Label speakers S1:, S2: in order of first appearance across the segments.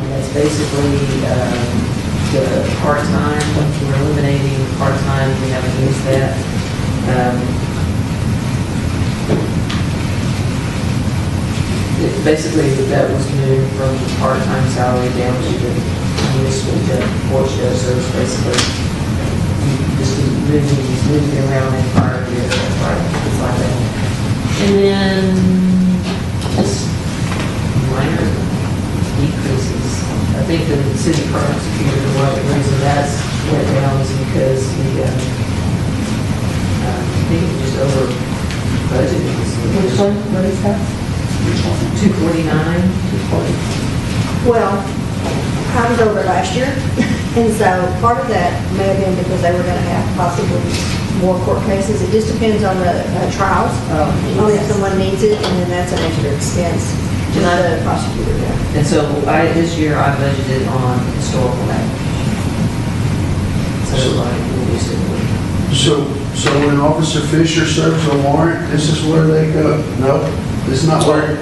S1: basically, um, the part-time, we're eliminating part-time, we haven't used that. Um, it- Basically, that was moved from the part-time salary down to the municipal debt portion, so it's basically just moving, moving around in prior years, that's why it's like that. And then, just minor decreases. I think the city prosecutor, one of the reasons that's went down is because the, uh, uh, I think it was over budgeted.
S2: Which one, what is that?
S1: Two forty-nine.
S3: Well, I was over last year, and so part of that may have been because they were going to have possibly more court cases. It just depends on the uh, trials.
S1: Oh,
S3: Only if someone needs it, and then that's an extra expense to the prosecutor there.
S1: And so I, this year I budgeted on historical act. So like, we'll be sitting.
S4: So, so when Officer Fisher serves a warrant, this is where they go? No, this is not where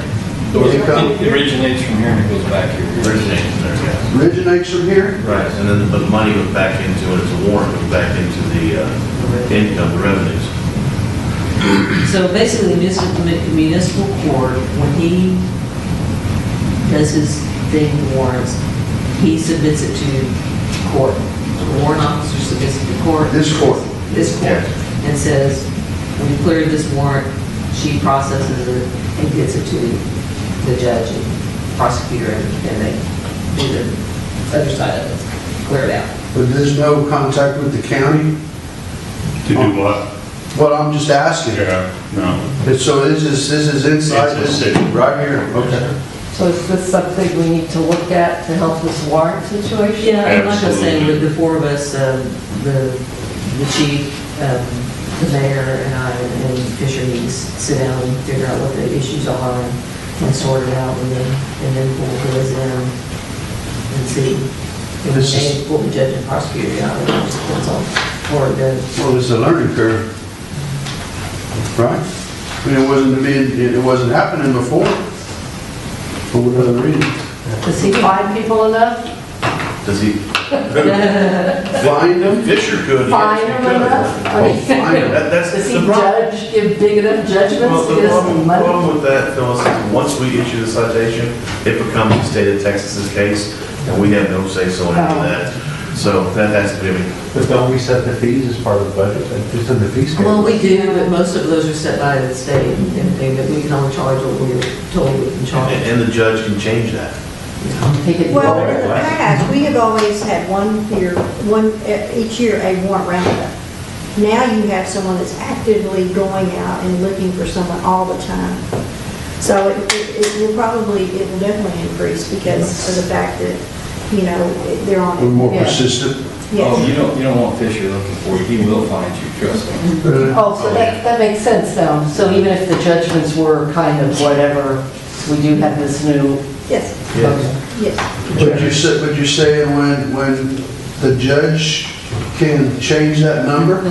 S4: they come.
S5: It originates from here and it goes back here.
S6: originates there, yes.
S4: Originates from here?
S6: Right, and then, but the money goes back into it, it's a warrant, goes back into the uh, income, the revenues.
S1: So basically, municipal municipal court, when he does his thing warrants, he submits it to court. The warrant officer submits it to court.
S4: This court.
S1: This court. And says, we cleared this warrant, she processes it and gets it to the judge and prosecutor, and and they do the other side of it, clear it out.
S4: But there's no contact with the county?
S7: To do what?
S4: Well, I'm just asking.
S7: Yeah, no.
S4: And So this is, this is inside the
S7: It's a
S4: city,
S7: city.
S4: right here, okay.
S2: So is this something we need to look at to help this warrant situation?
S1: Yeah, and like I say,
S7: Absolutely.
S1: with the four of us, um, the, the chief, um, the mayor, and I, and Fisher, we s- sit down and figure out what the issues are and and sort it out, and then, and then we'll go in and see. And
S4: This is-
S1: then we'll be judge and prosecutor, yeah, and that's all, or the,
S4: Well, it's a learning curve, right? I mean, it wasn't, to be- it wasn't happening before, for whatever reason.
S2: Does he find people enough?
S6: Does he?
S4: Find them?
S6: Fisher could. yes, he
S2: Find them
S6: could.
S2: enough? I
S4: Oh,
S2: mean,
S4: find them.
S6: That- That's
S2: Does he
S6: the problem.
S2: judge, give big enough
S6: Well,
S2: judgments to
S6: the
S2: get us the
S6: problem,
S2: money?
S6: problem with that, Phyllis, is once we issue the citation, it becomes the state of Texas's case, and we have no say so in
S2: Oh.
S6: any of that. So that has to be,
S8: But don't we set the fees as part of the budget, and it's in the fee schedule?
S1: well, we do, but most of those are set by the state, and everything, but we can only charge what we're told we can charge.
S6: and the judge can change that.
S2: Take it
S3: Well,
S2: lower.
S3: in the past, we have always had one year, one, eh, each year, a warrant roundup. Now you have someone that's actively going out and looking for someone all the time. So it, it- it will probably, it will definitely increase because of the fact that, you know, it- they're
S4: We're
S3: on it.
S4: more
S2: Yeah.
S4: persistent.
S5: Oh,
S3: Yes.
S5: you don't, you don't want Fisher looking for you. He will find you, trust me.
S2: Oh, so that, that makes sense though. So even if the judgments were kind of whatever, we do have this new.
S3: Yes,
S4: Yes.
S3: yes.
S4: But you said, but you're saying when, when the judge can change that number?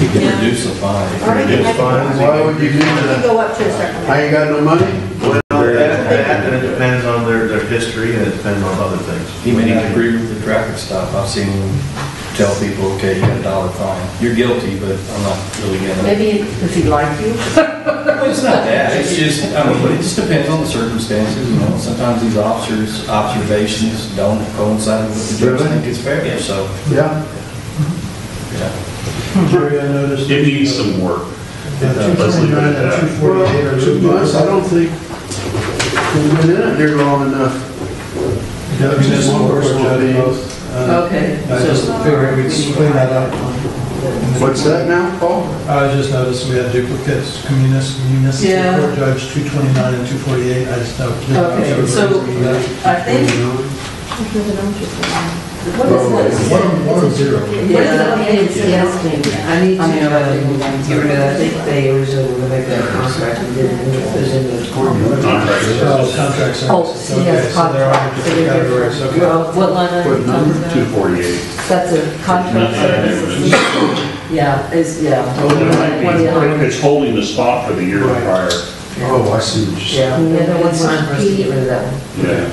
S5: He can reduce the fine.
S3: Or we can make it-
S4: Why would you do
S3: we can
S4: that?
S3: Go up to a certain amount.
S4: I ain't got no money?
S6: Well, that, that, and it depends on their, their history, and it depends on other things.
S5: He may not agree with the traffic stop. I've seen him tell people, okay, you got a dollar fine. You're guilty, but I'm not really gonna.
S2: Maybe, does he like you?
S5: Well, It's not that. It's just, I mean, it just depends on the circumstances, you know. Sometimes these officers' observations don't coincide with what the judge
S4: Really?
S5: think is fair, so,
S4: Yeah.
S5: yeah.
S8: Jerry, I noticed.
S7: It needs some work.
S8: Let's leave it at that.
S4: Well, two months, I don't think we've been in it here long enough.
S8: Judge is one person, judge both.
S1: Okay.
S8: Uh, I
S1: so-
S8: just figured we'd clean that up.
S4: What's that now, Paul?
S8: I just noticed we had duplicates, communis-
S1: Yeah.
S8: municipal court judge 229 and 248, I just don't. didn't know if
S1: Okay,
S8: there was
S1: so
S8: a reason that-
S1: I think, what is this?
S8: One, one zero.
S1: Yeah.
S2: Yes, yes, maybe.
S1: I need to,
S2: I mean, I
S1: uh,
S2: think we want to-
S1: get rid of, I think they originally were gonna make that contract and didn't, it was in the court.
S8: Oh, contract services.
S2: Oh, see,
S8: Okay,
S2: yes,
S8: so there are
S2: contract.
S8: different categories, okay.
S2: Well, What line are you
S4: What
S2: talking
S4: number?
S2: about?
S7: forty-eight.
S2: That's a contract service.
S1: Yeah, it's, yeah.
S7: It's holding the spot for the year prior.
S4: Oh, I see what you're saying.
S1: Yeah, the other one's time for us to get rid of that one.
S7: Yeah.